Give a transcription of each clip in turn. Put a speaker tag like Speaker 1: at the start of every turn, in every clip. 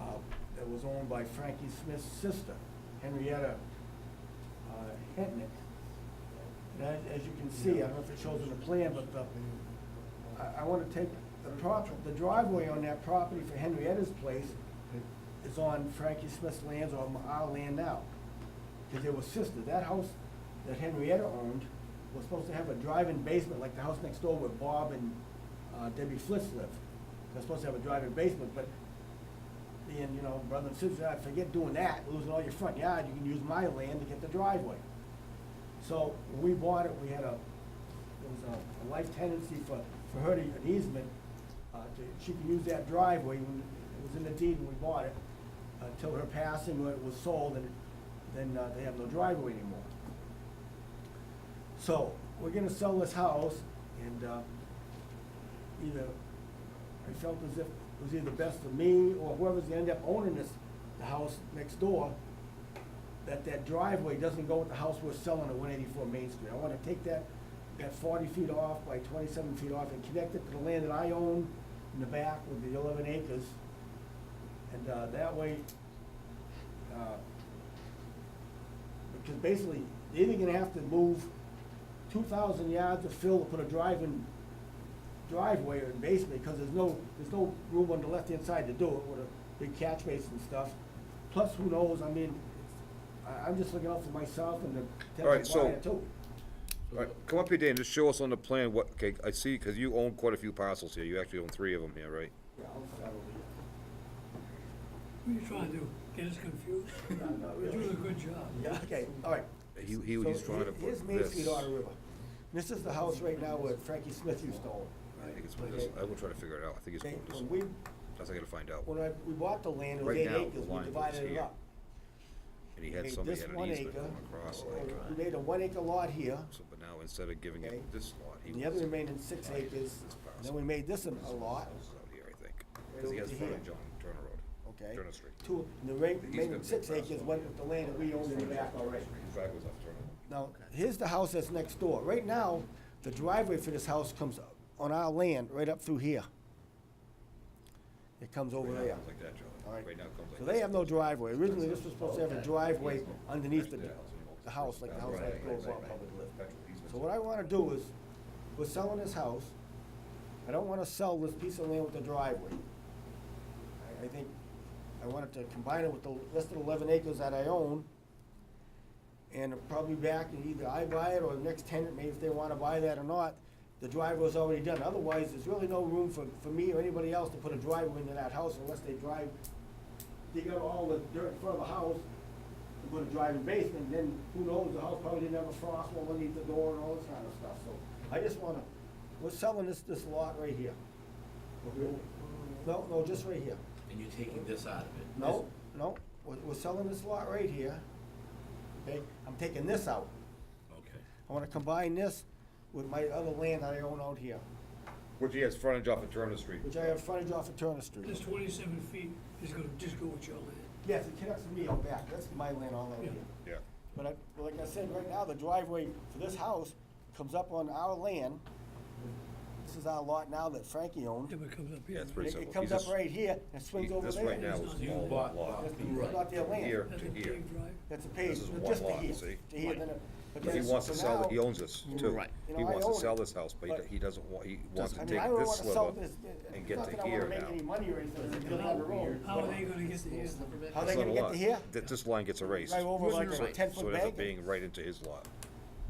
Speaker 1: uh, was owned by Frankie Smith's sister, Henrietta uh, Hentnick. And as, as you can see, I don't know if it shows in the plan, but the, I, I wanna take the prop, the driveway on that property for Henrietta's place is on Frankie Smith's lands or on our land now. Cause they were sisters. That house that Henrietta owned was supposed to have a drive-in basement, like the house next door where Bob and uh, Debbie Flitz lived. They're supposed to have a drive-in basement, but being, you know, brother and sister, I forget doing that, losing all your front yard, you can use my land to get the driveway. So when we bought it, we had a, it was a- a life tenancy for, for her to, an easement, uh, to, she could use that driveway, when it was in the deed when we bought it, until her passing, when it was sold, and then, uh, they have no driveway anymore. So, we're gonna sell this house, and, uh, either, I felt as if it was either best for me, or whoever's gonna end up owning this, the house next door, that that driveway doesn't go with the house we're selling at one eighty-four Main Street. I wanna take that, that forty feet off by twenty-seven feet off and connect it to the land that I own in the back with the eleven acres. And, uh, that way, uh, because basically, they're either gonna have to move two thousand yards of fill to put a drive-in driveway or basement, because there's no, there's no room on the left-hand side to do it with a big catch basin and stuff. Plus, who knows, I mean, I, I'm just looking out for myself and the
Speaker 2: All right,
Speaker 1: potential
Speaker 2: so-
Speaker 1: buyer too.
Speaker 2: All right, come up here, Dan, just show us on the plan what, okay, I see, because you own quite a few parcels here, you actually own three of them here, right?
Speaker 1: Yeah, I'll start over
Speaker 3: What are you trying to do? Get us confused?
Speaker 1: here. No, not
Speaker 3: You're
Speaker 1: really.
Speaker 3: doing a good job.
Speaker 1: Yeah, okay, all right.
Speaker 2: He, he, he's
Speaker 1: So
Speaker 2: trying
Speaker 1: here-
Speaker 2: to put this.
Speaker 1: Here's Main Street on the river. This is the house right now where Frankie Smith used to own.
Speaker 2: I think it's put this, I will try to figure it out, I think it's
Speaker 1: Okay,
Speaker 2: put this,
Speaker 1: when we,
Speaker 2: that's I gotta find out,
Speaker 1: when I, we bought the land, it was
Speaker 2: Right
Speaker 1: eight
Speaker 2: now, the
Speaker 1: acres, we
Speaker 2: line goes
Speaker 1: divided it
Speaker 2: here.
Speaker 1: up.
Speaker 2: and he had
Speaker 1: Okay,
Speaker 2: somebody
Speaker 1: this
Speaker 2: had
Speaker 1: one
Speaker 2: an easement
Speaker 1: acre,
Speaker 2: come across,
Speaker 1: or
Speaker 2: like,
Speaker 1: We made a one acre lot here,
Speaker 2: so, but now instead of giving
Speaker 1: Okay.
Speaker 2: it this lot, he
Speaker 1: and the other
Speaker 2: was
Speaker 1: remaining six acres, and then we made this an- a lot,
Speaker 2: out here, I think, because he
Speaker 1: over
Speaker 2: has
Speaker 1: to here.
Speaker 2: frontage on Turner Road,
Speaker 1: okay?
Speaker 2: Turner Street.
Speaker 1: Two, and the ra- remaining
Speaker 2: gonna
Speaker 1: six
Speaker 2: be across.
Speaker 1: acres went with the land that we owned in the back already.
Speaker 2: His driveway's off Turner. Road.
Speaker 1: Now, here's the house that's next door. Right now, the driveway for this house comes up on our land, right up through here. It comes over
Speaker 2: Right now, it
Speaker 1: there.
Speaker 2: comes like that, Joe,
Speaker 1: All right.
Speaker 2: right now it comes like
Speaker 1: So
Speaker 2: this.
Speaker 1: they have no driveway. Originally, this was supposed to have a driveway underneath the, the house, like the house that goes up public lift. So what I wanna do is, we're selling this house. I don't wanna sell this piece of land with the driveway. I, I think, I wanted to combine it with the rest of the eleven acres that I own. And probably back, and either I buy it or the next tenant, maybe if they wanna buy that or not, the driveway's already done. Otherwise, there's really no room for, for me or anybody else to put a driveway into that house unless they drive, dig up all the dirt in front of the house and put a drive-in basement, then who knows, the house probably didn't have a frost wall underneath the door and all this kind of stuff, so. I just wanna, we're selling this, this lot right here. No, no, just right here.
Speaker 4: And you're taking this out of it?
Speaker 1: No, no, we're, we're selling this lot right here. Okay, I'm taking this out.
Speaker 4: Okay.
Speaker 1: I wanna combine this with my other land that I own out here,
Speaker 2: Which he has frontage off of Turner Street.
Speaker 1: which I have frontage off of Turner Street.
Speaker 3: This twenty-seven feet is gonna just go with your land.
Speaker 1: Yes, it connects to me out back, that's my land all out here.
Speaker 2: Yeah.
Speaker 1: But I, but like I said, right now, the driveway for this house comes up on our land. This is our lot now that Frankie owned.
Speaker 3: Yeah, but it comes up here.
Speaker 2: Yeah, it's
Speaker 1: It-
Speaker 2: pretty simple.
Speaker 1: It comes
Speaker 2: He's
Speaker 1: up
Speaker 2: just-
Speaker 1: right here and swings
Speaker 2: he-
Speaker 1: over
Speaker 2: This
Speaker 1: there.
Speaker 2: right now
Speaker 3: It's
Speaker 2: is
Speaker 3: not
Speaker 2: all
Speaker 3: his
Speaker 2: lot,
Speaker 4: lot.
Speaker 2: lot.
Speaker 1: That's
Speaker 4: Right.
Speaker 1: not their land.
Speaker 2: Here
Speaker 3: That's
Speaker 2: to
Speaker 3: a
Speaker 2: here.
Speaker 3: paved drive.
Speaker 1: That's a page,
Speaker 2: This is
Speaker 1: but
Speaker 2: one
Speaker 1: just to
Speaker 2: lot,
Speaker 1: here,
Speaker 2: see?
Speaker 1: to here, then it. but
Speaker 2: But he
Speaker 1: then-
Speaker 2: wants
Speaker 1: so
Speaker 2: to sell, it. he
Speaker 1: now-
Speaker 2: owns this too.
Speaker 4: Right.
Speaker 1: You
Speaker 2: He
Speaker 1: know, I
Speaker 2: wants to
Speaker 1: own
Speaker 2: sell
Speaker 1: it,
Speaker 2: this house, but he
Speaker 1: but-
Speaker 2: d- he doesn't want, he wants
Speaker 1: I
Speaker 2: to
Speaker 1: mean,
Speaker 2: take
Speaker 1: I don't
Speaker 2: this
Speaker 1: wanna sell
Speaker 2: sliver
Speaker 1: this-
Speaker 2: and
Speaker 1: it's
Speaker 2: get
Speaker 1: not that
Speaker 2: to
Speaker 1: I wanna
Speaker 2: here
Speaker 1: make any
Speaker 2: now.
Speaker 1: money or anything, it's
Speaker 3: And
Speaker 1: built
Speaker 3: how-
Speaker 1: on the road.
Speaker 3: How are they gonna get to here?
Speaker 1: How they
Speaker 2: It's not
Speaker 1: gonna
Speaker 2: a
Speaker 1: get
Speaker 2: lot.
Speaker 1: to here?
Speaker 2: Th- This line gets erased,
Speaker 1: Right
Speaker 2: so
Speaker 1: over like a
Speaker 4: Right.
Speaker 1: ten
Speaker 2: it
Speaker 1: foot
Speaker 2: ends up
Speaker 1: bank?
Speaker 2: being right into his lot.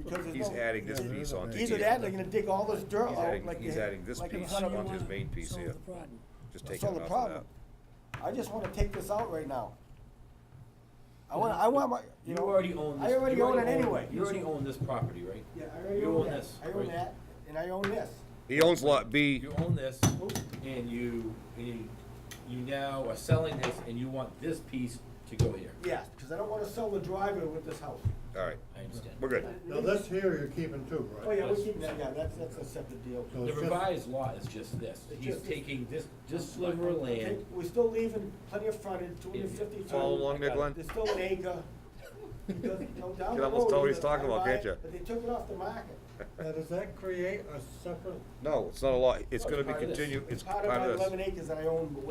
Speaker 1: because there's
Speaker 2: He's
Speaker 1: no-
Speaker 2: adding this piece onto here.
Speaker 1: Either that, they're gonna dig all this dirt
Speaker 2: He's
Speaker 1: out
Speaker 2: adding-
Speaker 1: like.
Speaker 2: he's
Speaker 1: they-
Speaker 2: adding this
Speaker 1: like in
Speaker 2: piece
Speaker 1: front of
Speaker 2: on
Speaker 1: me.
Speaker 2: his main piece
Speaker 3: Solve
Speaker 2: here.
Speaker 3: the problem.
Speaker 2: Just
Speaker 1: So
Speaker 2: taking
Speaker 1: the
Speaker 2: it off of
Speaker 1: problem.
Speaker 2: that.
Speaker 1: I just wanna take this out right now. I want, I want my, you
Speaker 4: You
Speaker 1: know.
Speaker 4: already own this.
Speaker 1: I already
Speaker 4: you
Speaker 1: own it anyway.
Speaker 4: You already own this property, right?
Speaker 1: Yeah, I already
Speaker 4: You
Speaker 1: own
Speaker 4: own
Speaker 1: that.
Speaker 4: this,
Speaker 1: I own
Speaker 4: right?
Speaker 1: that, and I own this.
Speaker 2: He owns lot B,
Speaker 4: You own this, and you, and you, you now are selling this, and you want this piece to go here.
Speaker 1: Yes, because I don't wanna sell the driveway with this house.
Speaker 2: alright,
Speaker 4: I understand.
Speaker 2: we're good.
Speaker 5: Now, this here you're keeping too,
Speaker 1: Oh,
Speaker 5: right?
Speaker 1: yeah, we're keeping that, yeah, that's, that's a separate deal.
Speaker 5: So
Speaker 4: The
Speaker 5: it's just-
Speaker 4: revised law is just this.
Speaker 1: It's
Speaker 4: He's
Speaker 1: just-
Speaker 4: taking this, this sliver of land.
Speaker 1: We're still leaving plenty of frontage, two hundred fifty feet.
Speaker 2: Follow along there, Glenn?
Speaker 1: There's still an acre. Because, you know, down
Speaker 2: Can
Speaker 1: the
Speaker 2: almost
Speaker 1: road,
Speaker 2: tell what he's
Speaker 1: I
Speaker 2: talking about,
Speaker 1: buy
Speaker 2: can't
Speaker 1: it,
Speaker 2: ya?
Speaker 1: But they took it off the market.
Speaker 5: Now, uh, does that create a separate
Speaker 2: No, it's not a lot, it's
Speaker 4: No,
Speaker 2: gonna
Speaker 4: it's
Speaker 2: be
Speaker 4: part of this.
Speaker 2: continued, it's
Speaker 1: Part of my eleven acres that I own